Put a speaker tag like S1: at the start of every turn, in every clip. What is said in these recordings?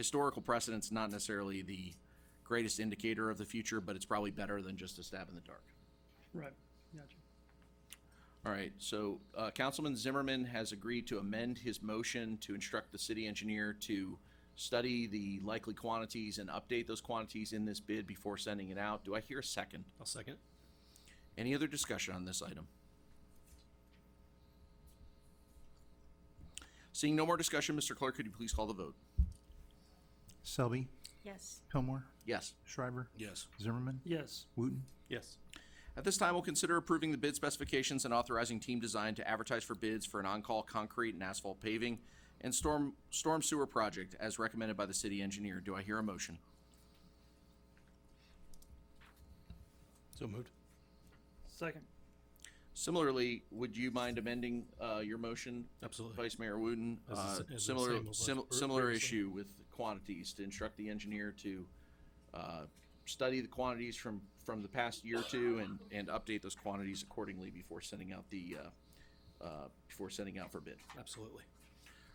S1: historical precedent's not necessarily the greatest indicator of the future, but it's probably better than just a stab in the dark.
S2: Right, gotcha.
S1: All right, so uh, Councilman Zimmerman has agreed to amend his motion to instruct the city engineer to study the likely quantities and update those quantities in this bid before sending it out. Do I hear a second?
S3: I'll second.
S1: Any other discussion on this item? Seeing no more discussion, Mr. Clerk, could you please call the vote?
S4: Selby,
S5: Yes.
S4: Pillmore,
S1: Yes.
S4: Shriver,
S3: Yes.
S4: Zimmerman,
S2: Yes,
S4: Wooten.
S3: Yes.
S1: At this time, we'll consider approving the bid specifications and authorizing team design to advertise for bids for an on-call concrete and asphalt paving and storm, storm sewer project as recommended by the city engineer. Do I hear a motion?
S3: So moved.
S2: second.
S1: Similarly, would you mind amending, uh, your motion,
S3: Absolutely.
S1: Vice Mayor Wooten?
S3: As the s-
S1: Uh,
S3: as the
S1: Similar,
S3: same as
S1: sim-
S3: last-
S1: similar
S3: previously.
S1: issue with quantities, to instruct the engineer to, uh, study the quantities from, from the past year or two and, and update those quantities accordingly before sending out the, uh, uh, before sending out for bid.
S3: Absolutely.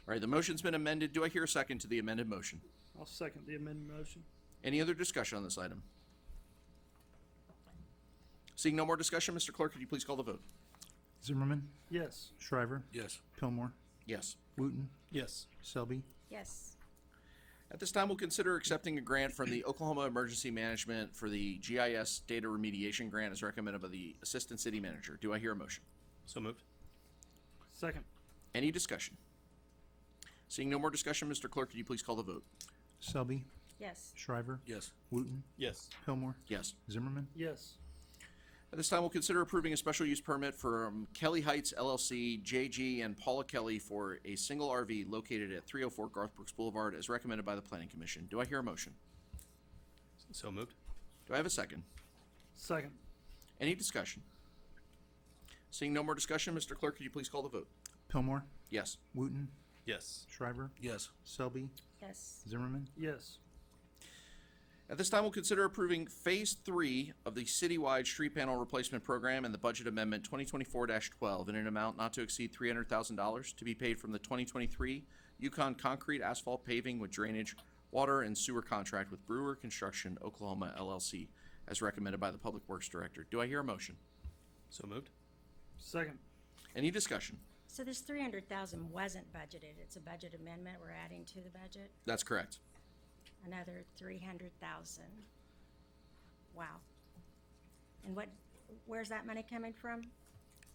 S1: All right, the motion's been amended. Do I hear a second to the amended motion?
S2: I'll second the amended motion.
S1: Any other discussion on this item? Seeing no more discussion, Mr. Clerk, could you please call the vote?
S4: Zimmerman,
S2: Yes,
S4: Shriver,
S3: Yes.
S4: Pillmore,
S1: Yes.
S4: Wooten,
S3: Yes.
S4: Selby,
S5: Yes.
S1: At this time, we'll consider accepting a grant from the Oklahoma Emergency Management for the GIS Data Remediation Grant as recommended by the Assistant City Manager. Do I hear a motion?
S3: So moved.
S2: second.
S1: Any discussion? Seeing no more discussion, Mr. Clerk, could you please call the vote?
S4: Selby,
S5: Yes.
S4: Shriver,
S3: Yes.
S4: Wooten,
S3: Yes.
S4: Pillmore,
S1: Yes.
S4: Zimmerman,
S2: Yes,
S1: At this time, we'll consider approving a special use permit for um, Kelly Heights LLC, JG, and Paula Kelly for a single RV located at 304 Garth Brooks Boulevard as recommended by the Planning Commission. Do I hear a motion?
S3: So moved.
S1: Do I have a second?
S2: second.
S1: Any discussion? Seeing no more discussion, Mr. Clerk, could you please call the vote?
S4: Pillmore,
S1: Yes.
S4: Wooten,
S3: Yes.
S4: Shriver,
S3: Yes.
S4: Selby,
S5: Yes.
S4: Zimmerman,
S2: Yes,
S1: At this time, we'll consider approving Phase 3 of the citywide street panel replacement program and the budget amendment 2024-12 in an amount not to exceed $300,000 to be paid from the 2023 Yukon Concrete Asphalt Paving with Drainage, Water, and Sewer Contract with Brewer Construction Oklahoma LLC, as recommended by the Public Works Director. Do I hear a motion?
S3: So moved.
S2: second.
S1: Any discussion?
S5: So this three hundred thousand wasn't budgeted. It's a budget amendment we're adding to the budget,
S1: That's correct.
S5: another three hundred thousand. Wow. And what, where's that money coming from?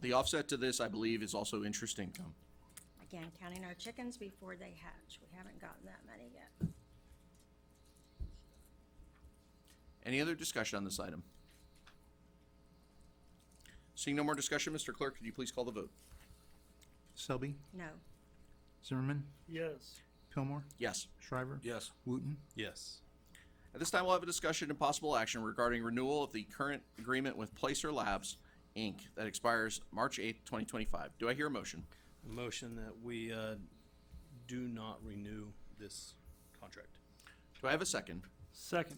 S1: The offset to this, I believe, is also interest income.
S5: Again, counting our chickens before they hatch. We haven't gotten that money yet.
S1: Any other discussion on this item? Seeing no more discussion, Mr. Clerk, could you please call the vote?
S4: Selby,
S5: No.
S4: Zimmerman,
S2: Yes,
S4: Pillmore,
S1: Yes.
S4: Shriver,
S3: Yes.
S4: Wooten,
S3: Yes.
S1: At this time, we'll have a discussion and possible action regarding renewal of the current agreement with Placer Labs, Inc. that expires March 8th, 2025. Do I hear a motion?
S3: Motion that we uh, do not renew this contract.
S1: Do I have a second?
S2: second.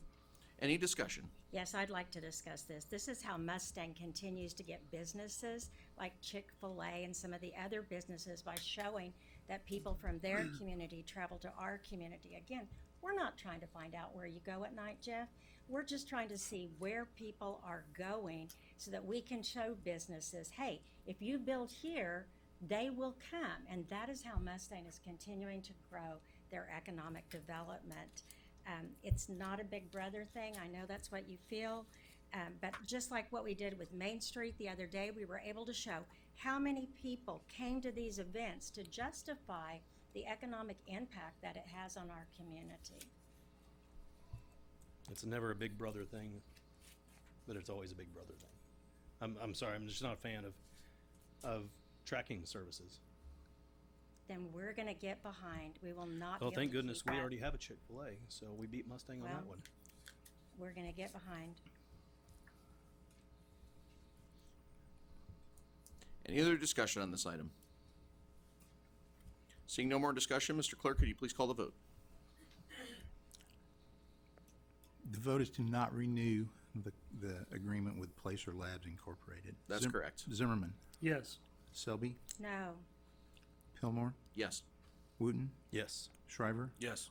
S1: Any discussion?
S5: Yes, I'd like to discuss this. This is how Mustang continues to get businesses like Chick-fil-A and some of the other businesses by showing that people from their community travel to our community. Again, we're not trying to find out where you go at night, Jeff. We're just trying to see where people are going so that we can show businesses, hey, if you build here, they will come. And that is how Mustang is continuing to grow their economic development. Um, it's not a big brother thing. I know that's what you feel. Um, but just like what we did with Main Street the other day, we were able to show how many people came to these events to justify the economic impact that it has on our community.
S3: It's never a big brother thing, but it's always a big brother thing. I'm, I'm sorry. I'm just not a fan of of tracking services.
S5: Then we're going to get behind. We will not.
S3: Well,
S5: be able
S3: Oh, thank
S5: to
S3: goodness
S5: keep
S3: we
S5: up.
S3: already have a Chick Fil A, so we beat Mustang on that
S5: Well,
S3: one.
S5: We're going to get behind.
S1: Any other discussion on this item? Seeing no more discussion, Mr. Clerk, could you please call the vote?
S4: The vote is to not renew the, the agreement with Placer Labs Incorporated.
S1: That's
S4: Zim-
S1: correct.
S4: Zimmerman,
S2: Yes,
S4: Selby,
S5: No,
S4: Pillmore,
S1: Yes.
S4: Wooten,
S3: Yes.
S4: Shriver,
S3: Yes.